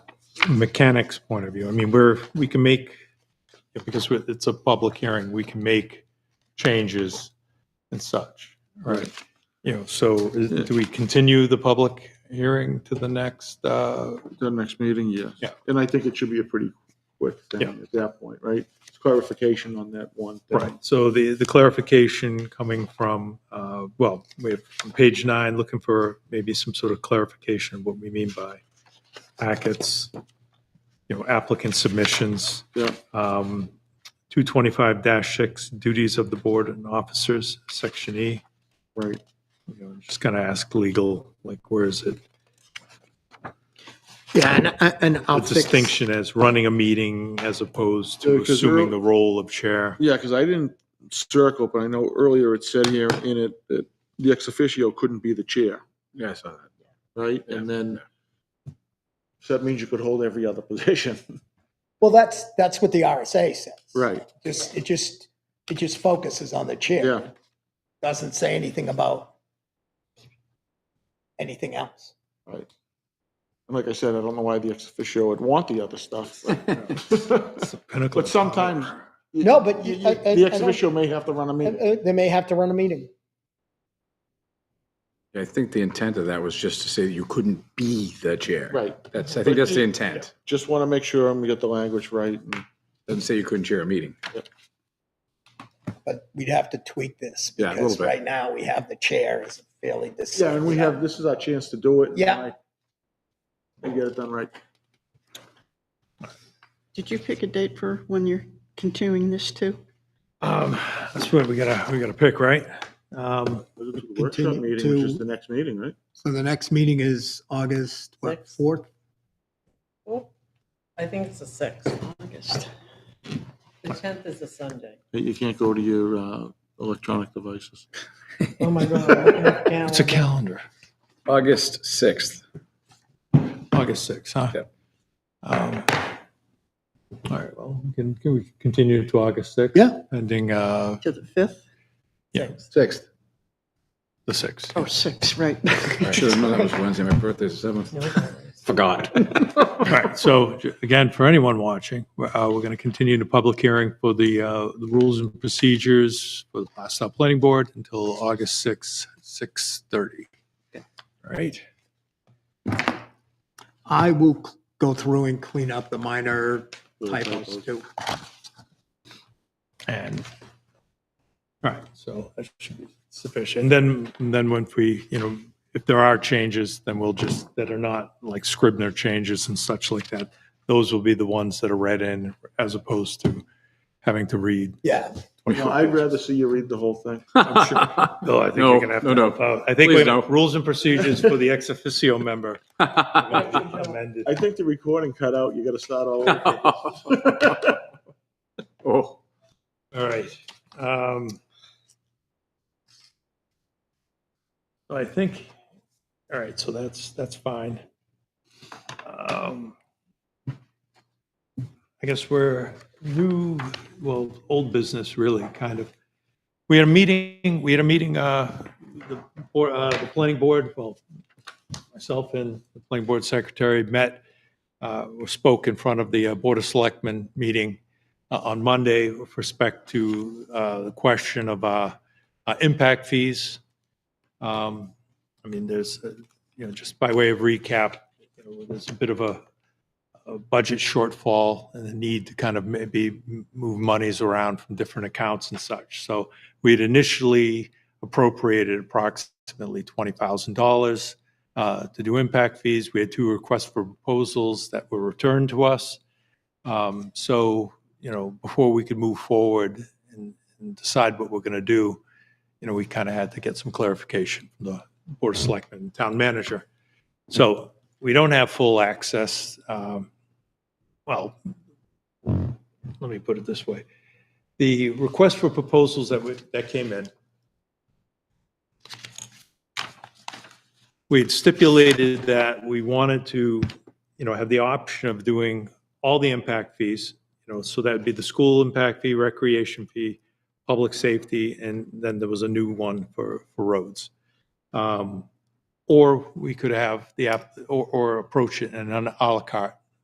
mechanics point of view, I mean, we're, we can make, because we're- it's a public hearing, we can make changes and such, right? You know, so is- do we continue the public hearing to the next, uh, The next meeting, yes. Yeah. And I think it should be a pretty quick thing Yeah. at that point, right? It's clarification on that one thing. Right, so the, the clarification coming from, uh, well, we have on page nine, looking for maybe some sort of clarification of what we mean by packets, you know, applicant submissions. Yeah, um, 225-6 duties of the board and officers, section E. right. You know, Just kind of ask legal, like, where is it? Yeah, and, uh, I- and The I'll fix. distinction as running a meeting as opposed Yeah, to 'cause they're- assuming the role of chair. Yeah, because I didn't circle, but I know earlier it said here in it that the ex officio couldn't be the chair, Yeah, I saw that. right? And then, so that means you could hold every other position. Well, that's, that's what the RSA says. Right, Just, it just, it just focuses on the chair. yeah, Doesn't say anything about anything else. right. And like I said, I don't know why the ex officio would want the other stuff. It's but- the pinnacle But of sometimes. No, but you- you- I- I- The I ex don't- officio may have to run a meeting. Uh, They may have to run a meeting. Yeah, I think the intent of that was just to say that you couldn't be the chair. Right. That's, I think that's the intent. Just want to make sure I'm get the language right. and- Doesn't say you couldn't chair a meeting. But we'd have to tweak this. Yeah, a little Because bit. right now we have the chair is fairly dis. Yeah, and we have, this is our chance to do it. Yeah. And get it done right. Did you pick a date for when you're continuing this to? Um, That's what we gotta, we gotta pick, right? Um, Workshop Continue meeting, which is to- the next meeting, right? So the next meeting is August, what, Sixth. 4th? Oh, I think it's the sixth. August. The tenth is a Sunday. You can't go to your uh, electronic devices. Oh, my God. It's calendar. August 6th. August 6th, huh? Yep. Um, All right, well, we can, can we continue to August 6th? Yeah. Pending, uh, To the 5th? Sixth. the 6th. Oh, six, right. Should have known that was Wednesday. My birthday's the 7th. Forgot. All right, so j- again, for anyone watching, we're, uh, we're going to continue the public hearing for the, uh, the rules and procedures for the Blackstone Planning Board until August 6th, 6:30. All right, I will c- go through and clean up the minor typos too. and, all right, so that should be sufficient. And then, and then when we, you know, if there are changes, then we'll just, that are not like Scribner changes and such like that, those will be the ones that are read in as opposed to having to read. Yeah, No, I'd rather see you read the whole thing. No, I think No, you're gonna have no, to. no. help out. I think Please we- no. rules and procedures for the ex officio member. amended. I think the recording cut out, you got to start all over. Oh, All right. um, So I think, all right, so that's, that's fine. Um, I guess we're new, well, old business really, kind of. We had a meeting, we had a meeting, uh, the, board- uh, the planning board, well, myself and the planning board secretary met, uh, spoke in front of the uh, Board of Selectmen meeting uh, on Monday with respect to uh, the question of uh, uh, impact fees. Um, I mean, there's, uh, you know, just by way of recap, you know, there's a bit of a a budget shortfall and the need to kind of maybe move monies around from different accounts and such. So we had initially appropriated approximately $20,000 uh, to do impact fees. We had two requests for proposals that were returned to us. Um, So, you know, before we could move forward and and decide what we're going to do, you know, we kind of had to get some clarification from the Board of Selectmen, and Town Manager. So we don't have full access. um, Well, let me put it this way. The request for proposals that we- that came in, we had stipulated that we wanted to, you know, have the option of doing all the impact fees, you know, so that'd be the school impact fee, recreation fee, public safety, and then there was a new one for, for roads. Um, Or we could have the, app or, or approach it in an à la carte